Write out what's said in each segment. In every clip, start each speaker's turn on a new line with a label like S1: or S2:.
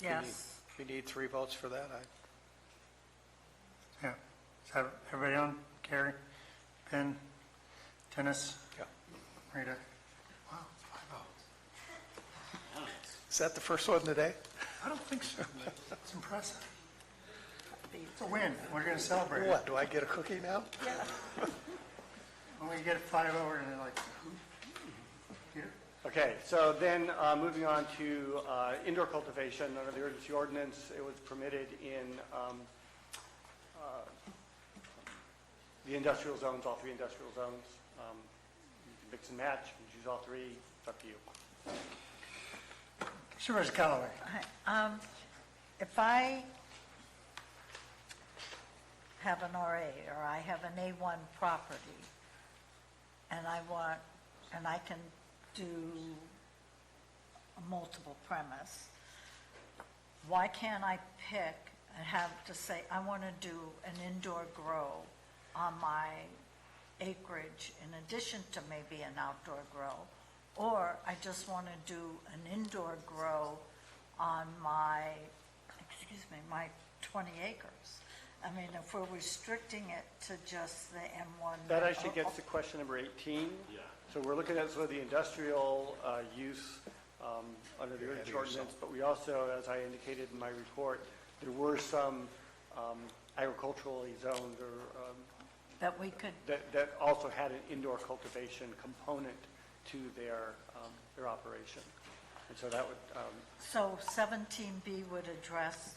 S1: We need-
S2: Yes.
S1: We need three votes for that. I-
S3: Yeah. Is that everybody on? Carrie, Ben, Dennis,
S1: yeah.
S3: Rita?
S1: Is that the first one today?
S3: I don't think so. It's impressive. It's a win. We're going to celebrate it.
S1: What, do I get a cookie now?
S3: When we get five over and they're like, who? Peter?
S4: Okay, so then, uh, moving on to uh, indoor cultivation, under the urgency ordinance, it was permitted in um, uh, the industrial zones, all three industrial zones. Um, you can Mix and match, you can choose all three, it's up to you.
S3: Supervisor Callaway?
S2: Um, If I have an RA or I have an A1 property and I want, and I can do a multiple premise, why can't I pick and have to say, I want to do an indoor grow on my acreage in addition to maybe an outdoor grow? Or I just want to do an indoor grow on my, excuse me, my 20 acres? I mean, if we're restricting it to just the Oh, M1.
S4: That actually gets to question number 18. Yeah. So we're looking at sort of the industrial uh, use um, under the urgency ordinance, but we also, as I indicated in my report, there were some um, agriculturally zoned or um,
S2: oh, That we could
S4: that, that also had an indoor cultivation component to their, um, their operation. And so that would, um,
S2: So 17B would address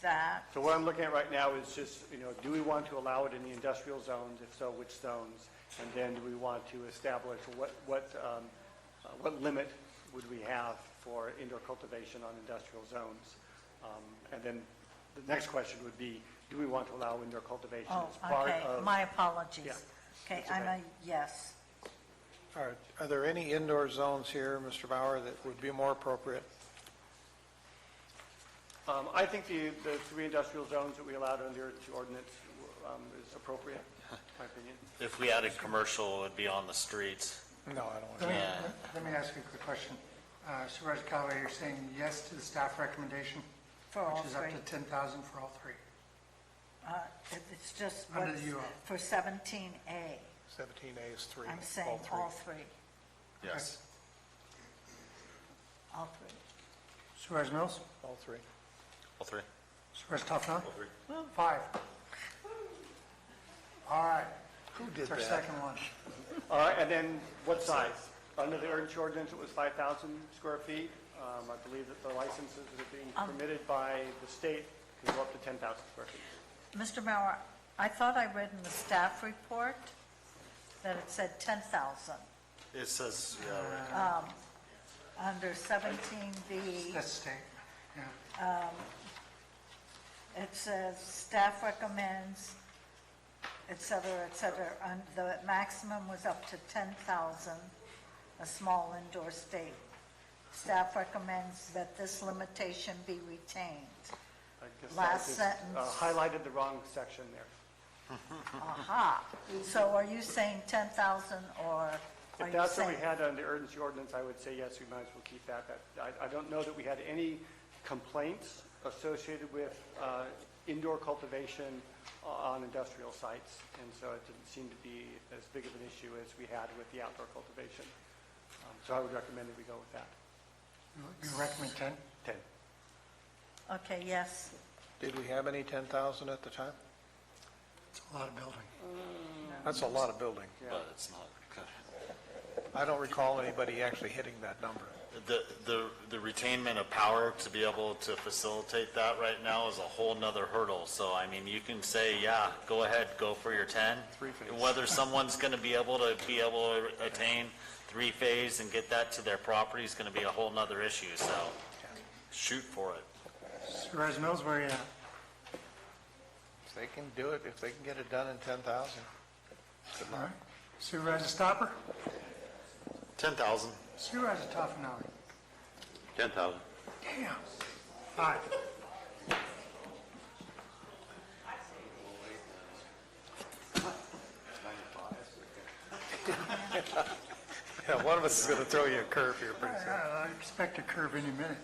S2: that,
S4: so what I'm looking at right now is just, you know, do we want to allow it in the industrial zones? If so, which zones? And then do we want to establish what, what, um, uh, what limit would we have for indoor cultivation on industrial zones? Um, And then the next question would be, do we want to allow indoor cultivation
S2: oh,
S4: as part
S2: okay,
S4: of?
S2: my
S4: Yeah,
S2: apologies. Okay,
S4: that's
S2: I'm
S4: okay.
S2: a yes.
S1: Are, are there any indoor zones here, Mr. Bauer, that would be more appropriate?
S4: Um, I think the, the three industrial zones that we allowed under the ordinance um, is appropriate, in my opinion.
S5: If we added commercial, it would be on the streets.
S1: No, I don't want
S3: Let me,
S1: to.
S5: Yeah.
S3: let me ask you a quick question. Uh, Supervisor Callaway, you're saying yes to the staff recommendation?
S2: For all
S3: Which is
S2: three.
S3: up to 10,000 for all three.
S2: Uh, it- It's just
S3: Under
S2: what's
S3: the UL.
S2: for 17A,
S1: 17A is three.
S2: I'm saying all three,
S3: Yes.
S2: all three.
S3: Supervisor Mills?
S1: All three.
S5: All three?
S3: Supervisor Toffenali?
S5: All three.
S3: Five. All right.
S1: Who did
S3: It's our
S1: that?
S3: second one.
S4: All right, and then what size? Under the urgency ordinance, it was 5,000 square feet. Um, I believe that the licenses that are being
S2: Um.
S4: permitted by the state can go up to 10,000 square feet.
S2: Mr. Mauer, I thought I read in the staff report that it said 10,000
S5: It says, yeah, right.
S2: under 17B.
S3: That's state. Yeah.
S2: It says, staff recommends, et cetera, et cetera, and the maximum was up to 10,000, a small indoor state. Staff recommends that this limitation be retained.
S4: I guess I
S2: Last
S4: just, uh,
S2: sentence.
S4: Highlighted the wrong section there. Uh-huh.
S2: Aha. So are you saying 10,000 or are
S4: If
S2: you
S4: that's what we
S2: saying?
S4: had under the urgency ordinance, I would say yes, we might as well keep that. That- I, I don't know that we had any complaints associated with uh, indoor cultivation uh, on industrial sites, and so it didn't seem to be as big of an issue as we had with the outdoor cultivation. Um, So I would recommend that we go with that.
S3: You recommend 10?
S4: 10.
S2: Okay, yes.
S1: Did we have any 10,000 at the time?
S3: It's a lot of building.
S1: That's a lot of building.
S5: but it's not.
S1: I don't recall anybody actually hitting that number.
S5: The, the, the retainment of power to be able to facilitate that right now is a whole nother hurdle. So, I mean, you can say, yeah, go ahead, go for your 10.
S1: Three-phase.
S5: Whether someone's going to be able to, be able to attain three-phase and get that to their property is going to be a whole nother issue, so shoot for it.
S3: Supervisor Mills, where are you at?
S1: If they can do it, if they can get it done in 10,000.
S3: All right. Supervisor Stopper?
S5: 10,000.
S3: Supervisor Toffenali?
S5: 10,000.
S3: Damn. Five.
S1: Yeah, one of us is going to throw you a curve here pretty soon.
S3: I expect a curve any minute.